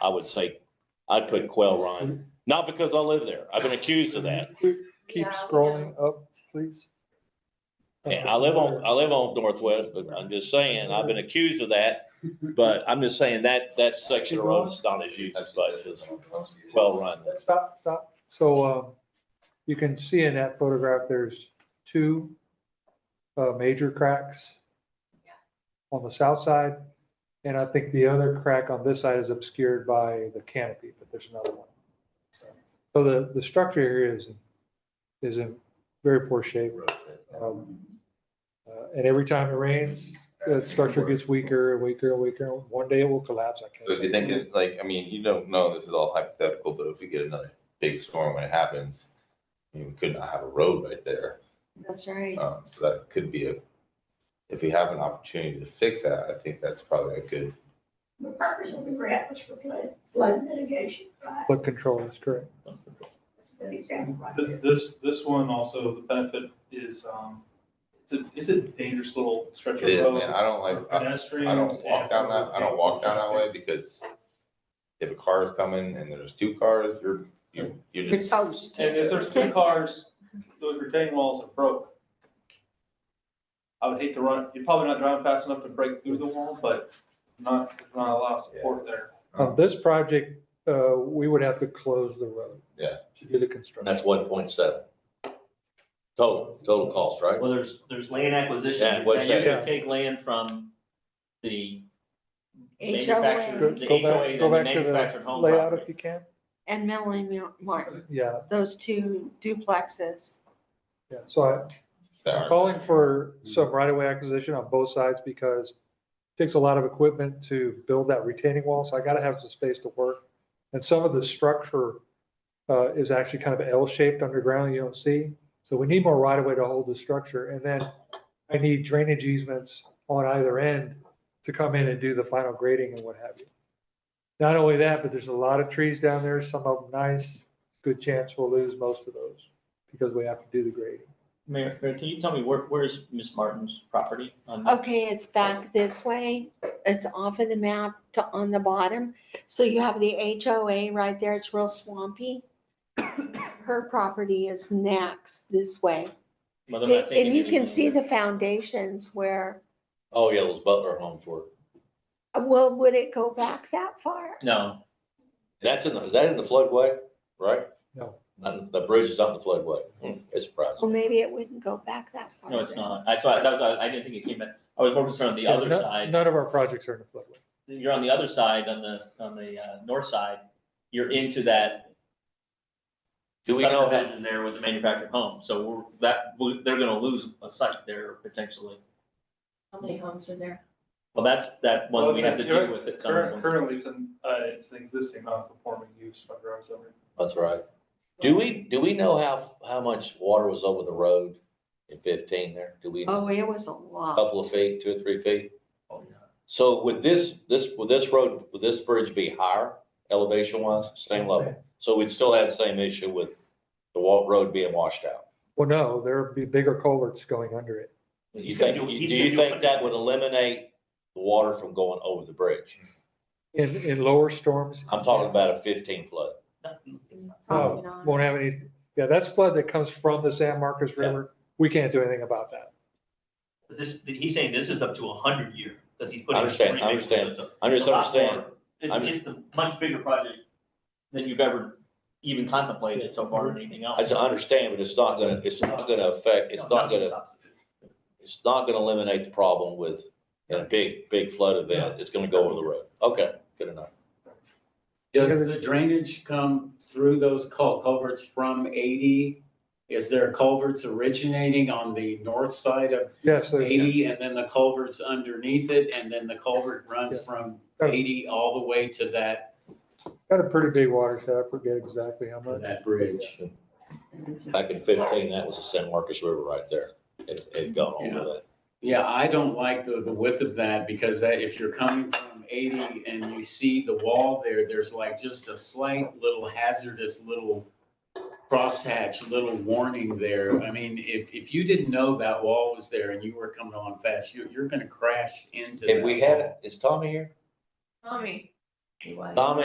I would say, I'd put Quail Run, not because I live there. I've been accused of that. Keep No, scrolling up, please. And I live on, uh, I live on Northwest, but I'm just saying, I've been accused of that. But I'm just saying that, that section of road is not as used as much as Quail Run. Stop, stop. So, uh, you can see in that photograph, there's two, uh, major cracks Yeah. on the south side. And I think the other crack on this side is obscured by the canopy, but there's another one. So the, the structure here is, is in very poor shape. Um, uh, And every time it rains, the structure gets weaker and weaker and weaker. One day it will collapse. I can't. So if you think it, like, I mean, you don't know, this is all hypothetical, but if we get another big storm when it happens, I mean, we could not have a road right there. That's Uh, right. Um, so that could be a, if we have an opportunity to fix that, I think that's probably a good, The purpose of the grant was for flood, flood mitigation, right? Flood control is correct. Good example right This, there. this, this one also, the benefit is, um, it's a, it's a dangerous little stretch of Yeah, man, road. I don't like, for I Pedestrians. I don't walk and down for that, I don't walk down that way because if a car is coming and there's two cars, you're, you're, you're just. toast. And if there's two cars, those retaining walls are broke. I would hate to run, you're probably not driving fast enough to break through the wall, but not, not a lot of support there. Uh-huh. On Um, this project, uh, we would have to close the road. Yeah. To do the And construction. that's one point seven. Total, total cost, right? Well, there's, there's land Yeah, acquisition, what's and you're that? gonna take land from the Go manufacturer, HOA the go back, HOA, go the back to manufactured the home layout if property. you can. and Melanie Martin, Yeah, those two duplexes. yeah. So I- I'm calling for some right of way acquisition on both sides because it takes a lot of equipment to build that retaining wall. So I gotta have some space to work. And some of the structure, uh, is actually kind of L shaped underground you don't see. So we need more right of way to hold the structure. And then I need drainage easements on either end to come in and do the final grading and what have you. Not only that, but there's a lot of trees down there, some of them nice, good chance we'll lose most of those because we have to do the grading. Mayor, Mayor, can you tell me where, where's Miss Martin's property Um, on? Okay, it's back this way. It's off of the map to on the bottom. So you have the HOA right there. It's real swampy. Her property is next this way. Well, they're not taking And you can anything see there. the foundations where, Oh, yeah, those Butler homes were. well, would it go back that far? No, That's in the, is that in the floodway, right? No. Not- The bridge is not the floodway. Hmm, It's surprising. Well, maybe it wouldn't go back that far. no, it's not. That's why, that was, I I didn't think it came in. I was more concerned on the Yeah, other no- side. None of our projects are in the floodway. You're on the other side, on the, on the, uh, north side. You're into that Do we know how, subdivision there with the manufactured home. So we're, that, they're gonna lose a site there potentially. How many homes are there? Well, that's, that Well, one we it's have to a- deal with at some Current- point. Currently, it's an, uh, it's an existing non-performing use by Grove's Over. that's right. Do we, do we know how, how much water was over the road in fifteen there? Do we, a Oh, it was a lot. couple of feet, two or three feet? Oh, yeah. So would this, this, would this road, would this bridge be higher elevation wise, same level? So we'd still have the same issue with the wa- road being washed out? Well, no, there'd be bigger culverts going under it. You think, do you think that would eliminate the water from going over the bridge? In, in lower storms. I'm talking about a fifteen flood. Probably Oh, not. Won't have any, yeah, that's flood that comes from the San Marcos River. We can't do anything about that. This, he's saying this is up to a hundred year, because he's I putting. understand, I understand. I just understand, I'm- It's, it's the much bigger project than you've ever even contemplated so far or anything else. I just understand, but it's not gonna, it's not gonna affect, it's not Nothing gonna, stops it. it's not gonna eliminate the problem with a big, big flood event. It's gonna go over the road. Okay, good enough. Does the drainage come through those cul- culverts from eighty? Is there culverts originating on the north side of Yeah, so. eighty and then the culverts underneath it? And then the culvert runs from eighty all the way to that, Got a pretty big watershed. I forget exactly how to much. that bridge? Back in fifteen, that was the San Marcos River right there. It, it gone over that. Yeah, I don't like the, the width of that because that, if you're coming from eighty and you see the wall there, there's like just a slight little hazardous little crosshatch, little warning there. I mean, if, if you didn't know that wall was there and you were coming on fast, you, you're gonna crash into that If we wall. had, is Tommy here? Tommy. Tommy,